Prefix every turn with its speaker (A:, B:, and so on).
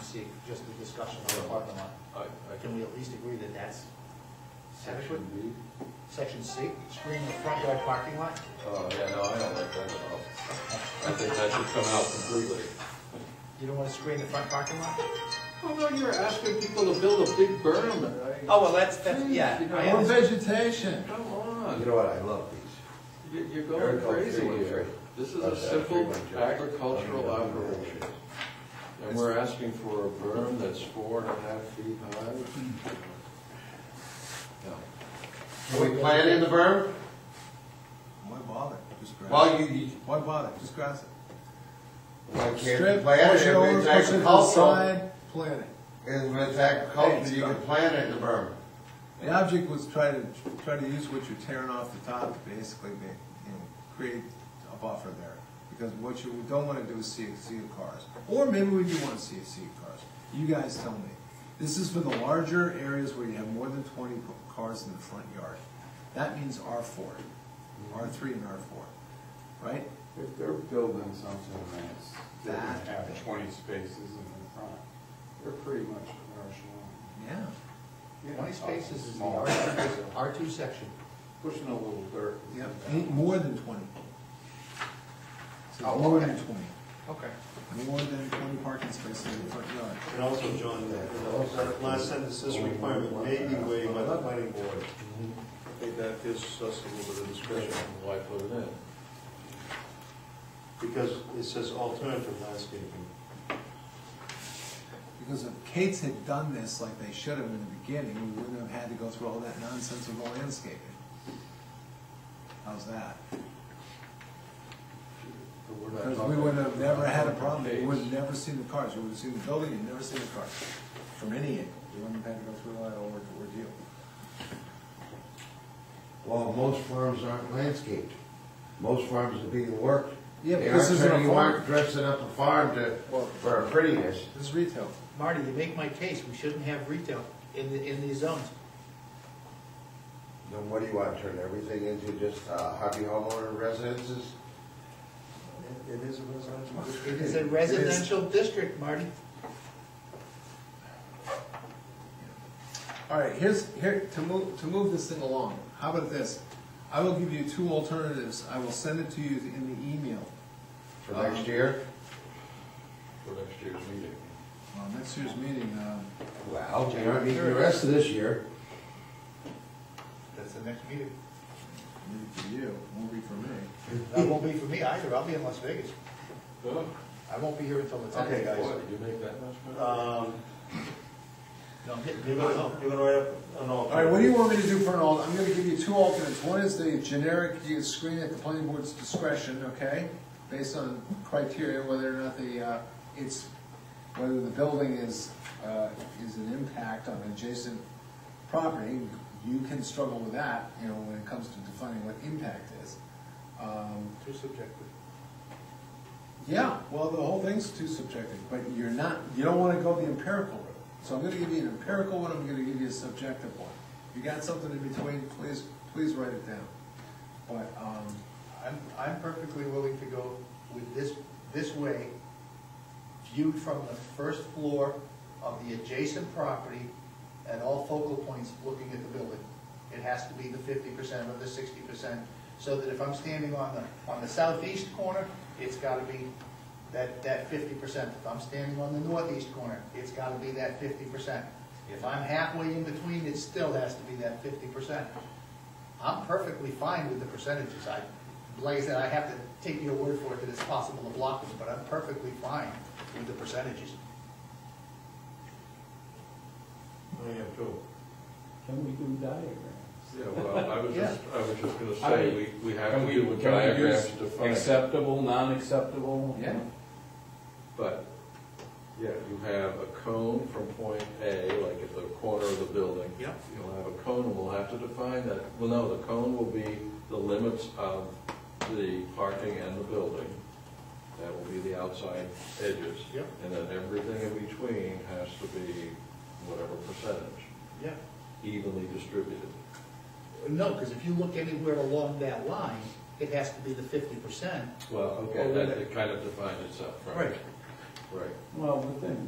A: see, just the discussion on the parking lot.
B: I, I
A: Can we at least agree that that's adequate?
B: Section B?
A: Section C, screening the front yard parking lot?
B: Oh, yeah, no, I don't like that at all. I think that should come out completely.
A: You don't want to screen the front parking lot?
B: Oh, no, you're asking people to build a big berm. I-
C: Oh, well, that's, that's,
B: Jeez,
C: yeah.
B: you know,
C: I
B: Or
D: Or
C: understand.
D: vegetation.
B: Come
D: Oh, You
B: on,
D: know what, I love these.
B: You- you're
D: Very
B: going
D: cool,
B: crazy
D: three one
B: here.
D: three.
B: This is
D: Uh,
B: a simple
D: three one two.
B: agricultural
D: I mean,
B: operation, and we're asking for a berm that's four and a half feet high. No.
E: Can we plant in the berm?
F: Why bother? Just grass
E: Well, you, you,
F: it. Why bother? Just grass it.
E: why can't you
D: Strip,
E: plant
D: push
E: it
D: it over,
E: if it's
D: push it to the
E: agricultural?
D: side, plant it.
E: And when it's agricultural, you can
F: Thanks,
E: plant it in the berm.
F: The object was try to, try to use what you're tearing off the top, basically, ma- you know, create a buffer there. Because what you don't wanna do is see a sea of cars. Or maybe we do wanna see a sea of cars. You guys tell me. This is for the larger areas where you have more than twenty cars in the front yard. That means R four, R three and R four, right?
G: If they're building something that's, they're
F: That-
G: gonna have twenty spaces in the front, they're pretty much commercial.
F: Yeah.
G: You're
A: Twenty
G: not talking
A: spaces is the
G: small.
A: R two, R two section.
G: Pushing a little dirt.
F: Yep, ain't more than twenty. So more than twenty,
A: Okay.
F: more than twenty parking spaces in the front yard.
H: And also, John, the- the last sentence, this requirement may be waived by the planning board. I think that gives us a little bit of discretion,
B: Why put it in?
H: because it says alternative landscaping.
F: Because if Kate's had done this like they should have in the beginning, we wouldn't have had to go through all that nonsense of the landscaping. How's that?
B: But we're not
F: Because we
B: talking-
F: would have never had a problem,
B: Dates.
F: you would have never seen the cars, you would have seen the building, you'd never seen the cars, from any angle, you wouldn't have had to go through all that ordeal.
E: Well, most farms aren't landscaped. Most farms are being worked.
F: Yeah, but
E: They
F: this
E: aren't-
F: isn't a
E: You
F: farm.
E: aren't dressing up a farm to,
F: Well-
E: for prettiness.
F: This is retail.
A: Marty, you make my case, we shouldn't have retail in, the in these zones.
E: Then what do you want, turn everything into just uh, hobby homeowner residences?
H: It is a residential district.
A: It is a residential district, Marty.
F: All right, here's, here, to move, to move this thing along, how about this? I will give you two alternatives, I will send it to you in the email.
E: For
F: Uh-huh.
E: next year?
B: For next year's meeting.
F: Well, next year's meeting, um,
E: Well, they aren't meeting the rest of this year.
A: That's the next meeting.
F: maybe for you, won't be for me.
A: That won't be for me either, I'll be in Las Vegas.
B: Oh,
A: I won't be here until the tenth,
H: Okay,
A: guys.
B: boy, you make that much money?
H: Um,
A: No, I'm hitting-
H: You're gonna, you're gonna write up an alternative.
F: All right, what do you want me to do for an alt, I'm gonna give you two alternates, one is the generic, you screen at the planning board's discretion, okay? Based on criteria, whether or not the, uh, it's, whether the building is, uh, is an impact on adjacent property, you can struggle with that, you know, when it comes to defining what impact is. Um,
A: Too subjective.
F: yeah, well, the whole thing's too subjective, but you're not, you don't wanna go the empirical route. So I'm gonna give you an empirical one, I'm gonna give you a subjective one. If you got something in between, please, please write it down. But, um,
A: I'm, I'm perfectly willing to go with this, this way, viewed from the first floor of the adjacent property at all focal points looking at the building. It has to be the fifty percent or the sixty percent, so that if I'm standing on the, on the southeast corner, it's gotta be that, that fifty percent. If I'm standing on the northeast corner, it's gotta be that fifty percent. If I'm halfway in between, it still has to be that fifty percent. I'm perfectly fine with the percentages. I, like I said, I have to take your word for it that it's possible to block them, but I'm perfectly fine with the percentages.
H: I am too.
I: Can we do diagrams?
B: Yeah, well, I was just, I was just gonna
I: I
B: say,
I: mean,
B: we, we have
I: Can
B: to
I: we
B: do
I: do- can
B: a
I: we do
B: diagrams to find,
I: Acceptable, non-acceptable?
F: Yeah.
B: but, yeah, you have a cone from point A, like at the corner of the building.
A: Yep.
B: You'll have a cone, and we'll have to define that, well, no, the cone will be the limits of the parking and the building. That will be the outside edges.
A: Yep.
B: And then everything in between has to be whatever percentage,
A: Yeah.
B: evenly distributed.
A: No, because if you look anywhere along that line, it has to be the fifty percent.
B: Well,
A: Oh,
B: okay,
A: wait a
B: that
A: minute.
B: it kind of defines itself, right?
A: Right.
B: Right.
I: Well, but then,